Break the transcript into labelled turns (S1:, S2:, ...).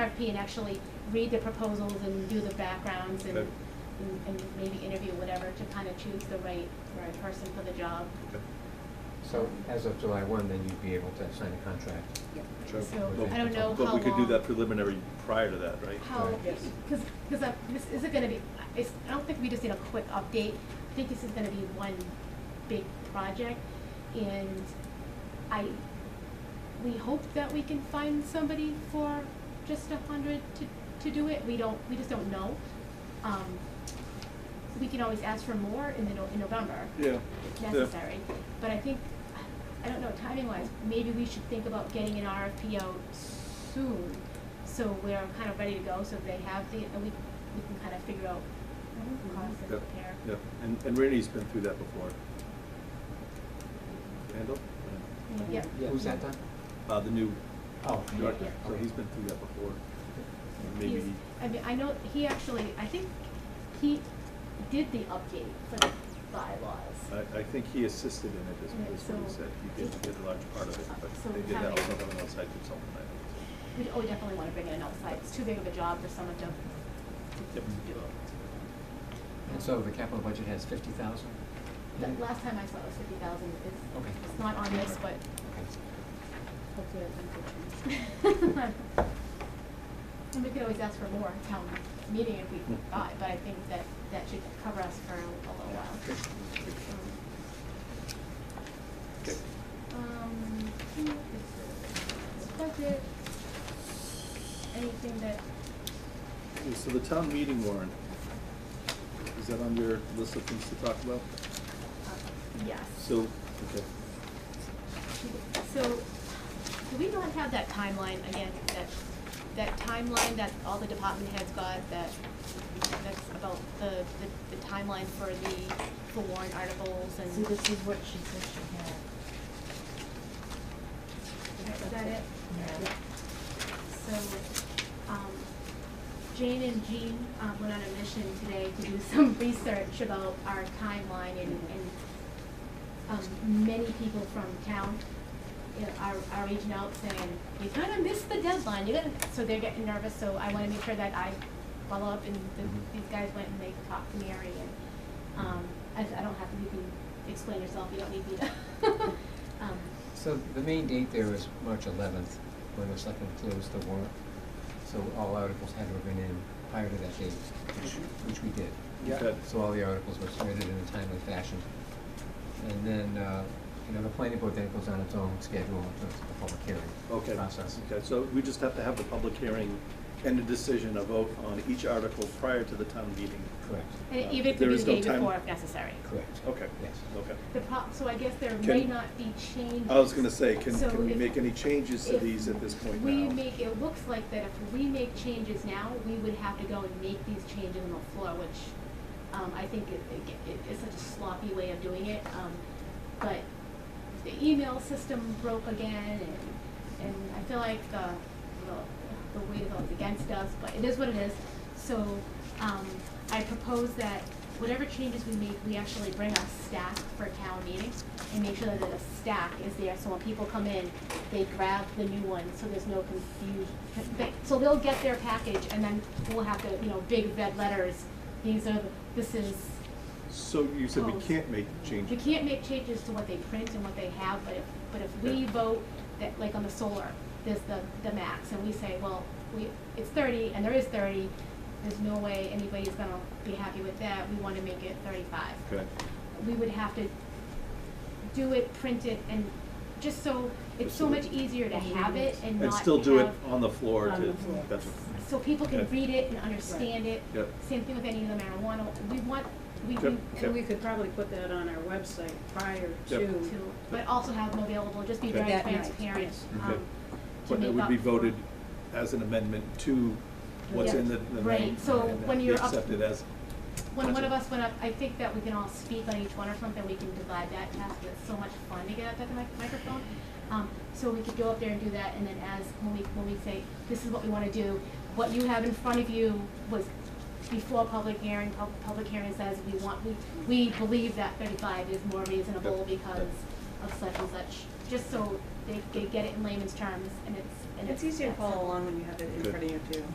S1: RFP and actually read the proposals and do the backgrounds and,
S2: Okay.
S1: and and maybe interview whatever to kind of choose the right, right person for the job.
S2: Okay.
S3: So as of July one, then you'd be able to sign a contract.
S2: Sure.
S1: So
S3: Okay.
S1: I don't know how long.
S2: But we could do that preliminary prior to that, right?
S1: How,
S3: Right.
S4: Yes.
S1: because, because this isn't gonna be, it's, I don't think we just need a quick update. I think this is gonna be one big project. And I, we hope that we can find somebody for just a hundred to, to do it. We don't, we just don't know. Um, we can always ask for more in the, no- in November
S2: Yeah.
S1: if
S2: Yeah.
S1: necessary. But I think, I don't know, timing wise, maybe we should think about getting an RFP out soon. So we're kind of ready to go, so they have the, and we, we can kind of figure out costs and
S2: Yeah,
S1: prepare.
S2: yeah. And, and Randy's been through that before. Randall?
S1: Yeah.
S3: Who's that done?
S2: Uh, the new
S3: Oh.
S2: director,
S1: yeah.
S2: so he's been through that before. And Maybe,
S1: He's, I mean, I know, he actually, I think he did the update for the bylaws.
S2: I, I think he assisted in it, is
S1: Yeah,
S2: is what he
S1: so-
S2: said. He did, he did a large part of it,
S1: So
S2: but they did
S1: having-
S2: that with someone outside consultant, I think. so.
S1: We, oh, we definitely wanna bring in an outside, it's too big of a job for someone to, to
S2: Yep.
S1: to do it.
S3: And so the capital budget has fifty thousand?
S1: The last time I saw it was fifty thousand, it's,
S3: Okay.
S1: it's not on this, but hopefully it doesn't get changed. And we could always ask for more at town meeting if we got, but I think that, that should cover us for a little while.
S2: Okay.
S1: Um, hmm, this is- budget, anything that,
S2: Okay, So the town meeting warrant, is that on your list of things to talk about?
S1: uh, yes.
S2: So, okay.
S1: So, do we not have that timeline again, that, that timeline that all the department heads got, that, that's about the, the, the timeline for the, for warrant articles and?
S4: See, this is what she said she had.
S1: Is that it?
S4: Yeah.
S1: So, um, Jane and Jean, um, went on a mission today to do some research about our timeline and, and, um, many people from town, you know, are, are reaching out saying, you're gonna miss the deadline, you're gonna, so they're getting nervous, so I wanna make sure that I follow up and the, these guys went and they talked to Mary and, um, I, I don't have to, you can explain yourself, you don't need me to. Um,
S3: So the main date there is March eleventh, when the selectmen closed the warrant. So all articles had to have been in prior to that date, which, which we did.
S2: Yeah. Okay.
S3: So all the articles were submitted in a timely fashion. And then, uh, you know, the planning board then goes on its own schedule in terms of the public
S2: Okay.
S3: hearing process.
S2: Okay, so we just have to have the public hearing and a decision, a vote on each article prior to the town meeting.
S3: Correct,
S1: And
S2: Uh,
S1: even if
S2: there
S1: we do
S2: is
S1: the
S2: no
S1: day
S2: time-
S1: before if necessary.
S3: correct.
S2: Okay.
S3: Yes.
S2: Okay.
S1: The prop, so I guess there
S2: Can-
S1: may not be changes.
S2: I was gonna say, can,
S1: So
S2: can we
S1: if-
S2: make any changes to
S1: if
S2: these at this point now?
S1: We make, it looks like that if we make changes now, we would have to go and make these changes on the floor, which, um, I think it, it, ge- it is such a sloppy way of doing it, um, but the email system broke again, and, and I feel like the, the, the weight of it was against us, but it is what it is. So, um, I propose that whatever changes we make, we actually bring a stack for town meeting and make sure that the stack is there, so when people come in, they grab the new one, so there's no confusion. So they'll get their package, and then we'll have to, you know, big red letters, these are, the- this is,
S2: So you said we
S1: Oh.
S2: can't make
S1: we
S2: changes?
S1: can't make changes to what they print and what they have, but if, but if we
S2: Yeah.
S1: vote that, like on the solar, there's the, the max, and we say, well, we, it's thirty, and there is thirty, there's no way anybody's gonna be happy with that, we wanna make it thirty-five.
S2: Okay,
S1: We would have to do it, print it, and just so, it's so much easier to have it and not
S2: and still do it
S1: have-
S2: on the floor
S4: On
S2: to,
S4: the floor.
S2: that's,
S1: so people can
S2: Yeah.
S1: read it and understand it.
S2: Yep.
S1: Same thing with any of the marijuana, we want, we,
S2: Yep.
S1: we,
S2: Yep.
S5: And we could probably put that on our website prior
S2: Yep.
S5: to.
S1: to, but also have them available, just be
S2: Okay.
S1: very
S4: That night,
S1: transparent,
S5: yes.
S1: um,
S2: Okay.
S1: to
S2: but it
S1: make
S2: would
S1: up
S2: be
S1: for-
S2: voted as an amendment to what's
S1: Yeah.
S2: in the, the.
S1: Right,
S2: main-
S1: so
S2: and
S1: when
S2: be
S1: you're up-
S2: Accepted as,
S1: When one
S2: Gotcha.
S1: of us went up, I think that we can all speak on each one or something, we can divide that task, it's so much fun to get up at the mic- microphone. Um, so we could go up there and do that, and then as, when we, when we say, this is what we wanna do, what you have in front of you was before public hearing, pub- public hearing says we want, we, we believe that thirty-five is more reasonable
S2: Yep.
S1: because of such and such, just so they, they get it in layman's terms, and it's, and it's.
S6: It's easier to
S1: that simple.
S6: follow along when you have it in
S2: Good.
S6: front of you too.